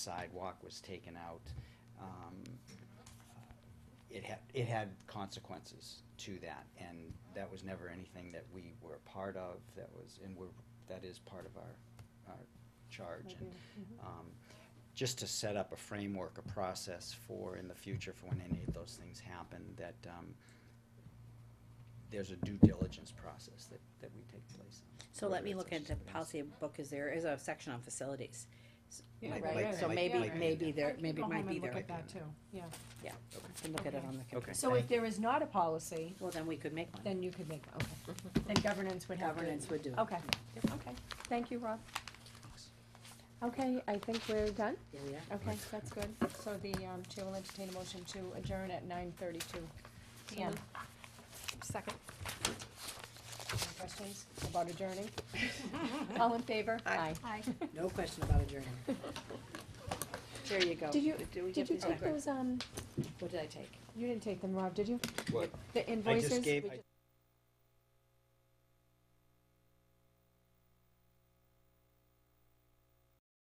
sidewalk was taken out, um, it had, it had consequences to that, and that was never anything that we were a part of, that was, and we're, that is part of our, our charge. And, um, just to set up a framework, a process for, in the future, for when any of those things happen, that, um, there's a due diligence process that, that we take place. in. So let me look Whether at it's the a- policy book, is there is a section on facilities. S- Yeah, Like- right, like- right. So like- maybe, like- maybe there, Can maybe go it might home be and look there, at that too, yeah. I can look at it on the computer. So if there is not a policy, Well, then we could make one, then you could make, okay, then governance would have to. governance would do. it. Okay, okay, thank you, Rob. Okay, I think we're done, Yeah, we are. okay, that's good, so the, um, chair will entertain a motion to adjourn at nine thirty-two PM. Second. Any questions about adjourning? All in favor? Aye. No question about adjourning. There you go. Did you- Do we Oh, Did get you these take back? those, um, What did I take? you didn't take them, Rob, did you? What? The I invoices? just gave, We I